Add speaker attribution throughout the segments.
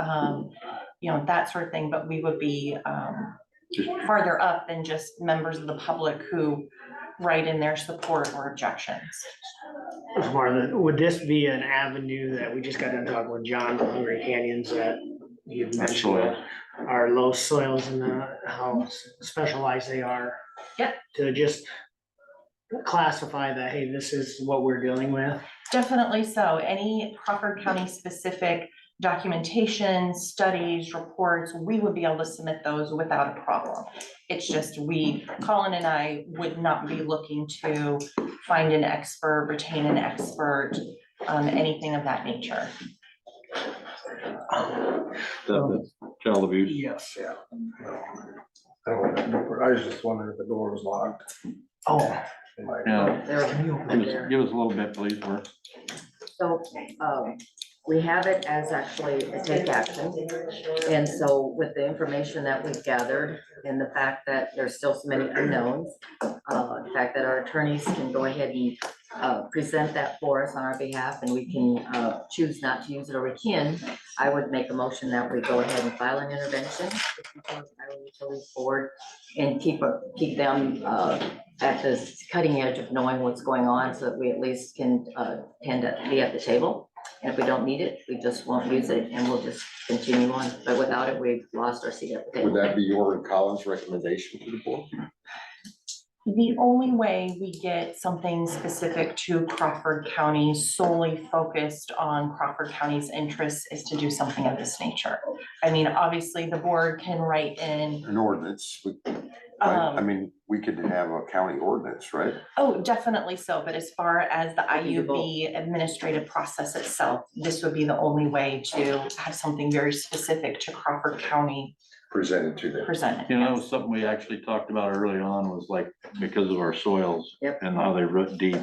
Speaker 1: um, you know, that sort of thing, but we would be, um,
Speaker 2: Just- uh,
Speaker 1: farther up than just members of the public who write in their support or objections.
Speaker 3: Ms. Martha, would this be an avenue that we just got done talking with John from Hungry Canyons that you mentioned?
Speaker 2: Absolutely.
Speaker 3: Our low soils and uh, how specialized they are.
Speaker 1: Yep.
Speaker 3: To just classify that, hey, this is what we're dealing with.
Speaker 1: Definitely so. Any Crawford County specific documentation, studies, reports, we would be able to submit those without a problem. It's just we, Colin and I would not be looking to find an expert, retain an expert, um, anything of that nature.
Speaker 2: That- that's Child abuse,
Speaker 3: Yes.
Speaker 4: I was just wondering if the door was locked.
Speaker 3: Oh,
Speaker 2: yeah,
Speaker 3: there's a mule
Speaker 2: give us,
Speaker 3: there.
Speaker 2: give us a little bit, please, we're,
Speaker 5: So, um, we have it as actually a take action. And so with the information that we've gathered and the fact that there's still so many unknowns, uh, the fact that our attorneys can go ahead and, uh, present that for us on our behalf and we can, uh, choose not to use it or we can, I would make a motion that we go ahead and file an intervention. with the Florida Iowa Utilities Board and keep, keep them, uh, at the cutting edge of knowing what's going on so that we at least can, uh, tend to be at the table. And if we don't need it, we just won't use it and we'll just continue on. But without it, we've lost our seat at the
Speaker 6: Would
Speaker 5: table.
Speaker 6: that be your and Colin's recommendation to the board?
Speaker 1: The only way we get something specific to Crawford County solely focused on Crawford County's interests is to do something of this nature. I mean, obviously, the board can write in,
Speaker 6: An ordinance, we- I I
Speaker 1: um,
Speaker 6: mean, we could have a county ordinance, right?
Speaker 1: oh, definitely so, but as far as the
Speaker 5: We can do both.
Speaker 1: IUB administrative process itself, this would be the only way to have something very specific to Crawford County
Speaker 6: Presented to them.
Speaker 1: presented.
Speaker 2: you know,
Speaker 1: yes.
Speaker 2: something we actually talked about early on was like, because of our soils.
Speaker 5: Yep.
Speaker 2: And how they root deep,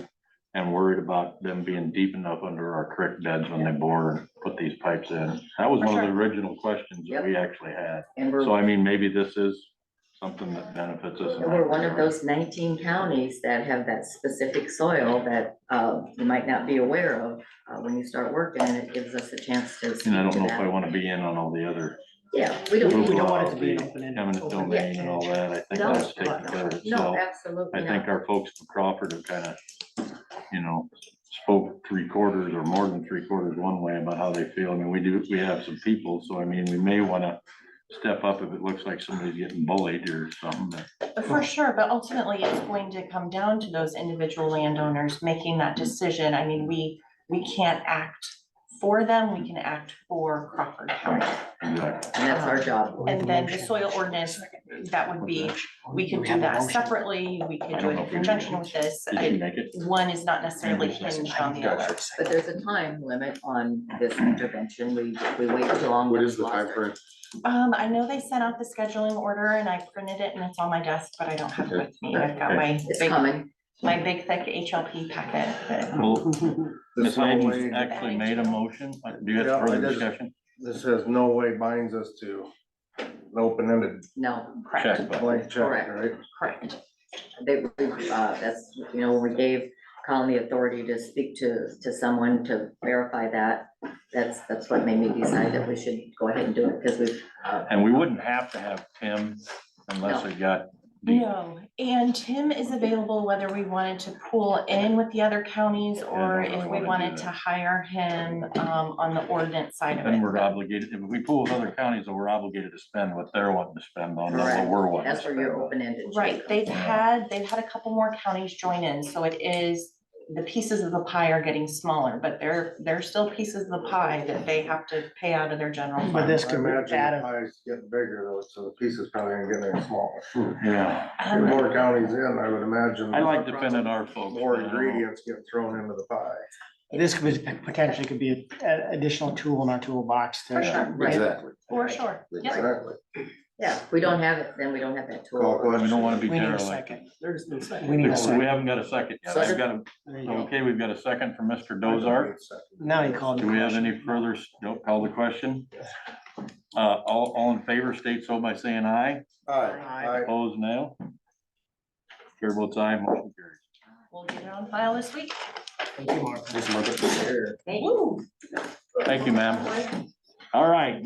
Speaker 2: and worried about them being deep enough under our creek beds when they bore, and put these pipes in. That was
Speaker 1: For
Speaker 2: one of the
Speaker 1: sure.
Speaker 2: original questions that
Speaker 5: Yep.
Speaker 2: we actually had,
Speaker 5: And we're,
Speaker 2: so I mean, maybe this is something that benefits us. in
Speaker 5: and
Speaker 2: that
Speaker 5: we're one of
Speaker 2: regard.
Speaker 5: those nineteen counties that have that specific soil that, uh, you might not be aware of, uh, when you start working and it gives us a chance to.
Speaker 2: And I don't
Speaker 5: speak
Speaker 2: know
Speaker 5: to
Speaker 2: if I
Speaker 5: that.
Speaker 2: wanna be in on all the other
Speaker 5: Yeah, we
Speaker 3: We
Speaker 5: don't
Speaker 3: we
Speaker 5: need.
Speaker 3: don't want it to be an
Speaker 2: Overall,
Speaker 3: open-ended-
Speaker 2: eminent
Speaker 3: open-
Speaker 2: domain and all that, I think
Speaker 5: No,
Speaker 2: that's taken care of
Speaker 5: No,
Speaker 2: itself. I
Speaker 5: absolutely
Speaker 2: think
Speaker 5: not.
Speaker 2: our folks from Crawford have kind of, you know, spoke three quarters or more than three quarters one way about how they feel. I mean, we do, we have some people, so I mean, we may want to step up if it looks like somebody's getting bullied or something, but
Speaker 1: For sure, but ultimately it's going to come down to those individual landowners making that decision. I mean, we, we can't act for them, we can act for Crawford County.
Speaker 2: exactly.
Speaker 5: And that's our job.
Speaker 3: We have
Speaker 1: And
Speaker 3: a
Speaker 1: then the
Speaker 3: motion.
Speaker 1: soil ordinance, that would be, we could
Speaker 3: We
Speaker 1: do
Speaker 3: have a
Speaker 1: that
Speaker 3: motion.
Speaker 1: separately, we could
Speaker 2: I
Speaker 1: do
Speaker 2: don't
Speaker 1: it
Speaker 2: know
Speaker 1: in
Speaker 2: if we need
Speaker 1: conjunction
Speaker 2: it.
Speaker 1: with this.
Speaker 2: Did you
Speaker 1: I-
Speaker 2: make it?
Speaker 1: One is not necessarily hinged on the other.
Speaker 5: But there's a time limit on this intervention. We, we wait too long.
Speaker 6: What
Speaker 5: we've
Speaker 6: is the
Speaker 5: lost our-
Speaker 6: timeframe?
Speaker 1: Um, I know they sent out the scheduling order and I printed it and it's on my desk, but I don't have it with me. I've got my
Speaker 5: It's
Speaker 1: big,
Speaker 5: coming.
Speaker 1: my big thick HLP packet. but-
Speaker 2: Well,
Speaker 4: This
Speaker 2: Ms.
Speaker 4: no
Speaker 2: Hayden
Speaker 4: way-
Speaker 2: actually made a motion. Do you
Speaker 4: Yeah, I
Speaker 2: have further
Speaker 4: just-
Speaker 2: discussion?
Speaker 4: This says no way binds us to an open-ended
Speaker 5: No,
Speaker 1: Correct,
Speaker 2: Check, but
Speaker 4: blank check,
Speaker 5: Correct.
Speaker 4: right?
Speaker 1: correct.
Speaker 5: they, we, uh, that's, you know, we gave Colin the authority to speak to, to someone to verify that. That's, that's what made me decide that we should go ahead and do it because we've, uh,
Speaker 2: and we wouldn't have to have Tim unless it got deep.
Speaker 1: No, and Tim is available whether we wanted to pool in with the other counties or
Speaker 2: Yeah, I don't
Speaker 1: if
Speaker 2: really
Speaker 1: we
Speaker 2: wanna do
Speaker 1: wanted
Speaker 2: that.
Speaker 1: to hire him um on the ordinance side of
Speaker 2: Then we're
Speaker 1: it.
Speaker 2: obligated, if we pool with other counties, then we're obligated to spend what they're wanting to spend on, not what
Speaker 5: Correct.
Speaker 2: we're wanting to
Speaker 5: that's where
Speaker 2: spend.
Speaker 5: you're
Speaker 2: on.
Speaker 5: open ended.
Speaker 1: Right, they've
Speaker 2: Yeah.
Speaker 1: had, they've had a couple more counties join in, so it is, the pieces of the pie are getting smaller, but there, there are still pieces of the pie that they have to pay out of their general fund.
Speaker 3: But this
Speaker 4: I
Speaker 3: could
Speaker 4: imagine the
Speaker 3: add a
Speaker 4: pie's getting bigger though, so the pieces probably ain't getting any smaller.
Speaker 2: Yeah,
Speaker 4: The
Speaker 1: Um,
Speaker 4: more counties in, I would imagine.
Speaker 2: I like defending our folks.
Speaker 4: More
Speaker 2: but I don't know.
Speaker 4: ingredients get thrown into the pie.
Speaker 3: This could be- potentially could be a- an additional tool in our toolbox
Speaker 1: For
Speaker 3: to,
Speaker 1: sure.
Speaker 5: Right.
Speaker 6: Exactly.
Speaker 1: For sure, yeah.
Speaker 4: Exactly.
Speaker 5: Yeah, if we don't have it, then we don't have that
Speaker 4: Call
Speaker 5: tool.
Speaker 2: We
Speaker 4: question.
Speaker 2: don't wanna be
Speaker 3: we need a
Speaker 2: derelict.
Speaker 3: second.
Speaker 4: There's no second.
Speaker 3: We need a
Speaker 2: We
Speaker 3: second.
Speaker 2: haven't got a second yet. I've got a,
Speaker 3: There you go.
Speaker 2: okay, we've got a second from Mr. Dozart.
Speaker 3: Now you called.
Speaker 2: Do we have any further, s- don't call the question? Uh, all, all in favor, state so by saying aye.
Speaker 4: Aye, aye.
Speaker 2: Opposed, no. Chair votes aye, motion carries.
Speaker 1: We'll get it on file this week.
Speaker 3: Thank you, Mark.
Speaker 4: Here.
Speaker 5: Thank you.
Speaker 1: Woo.
Speaker 2: Thank you, ma'am. All right,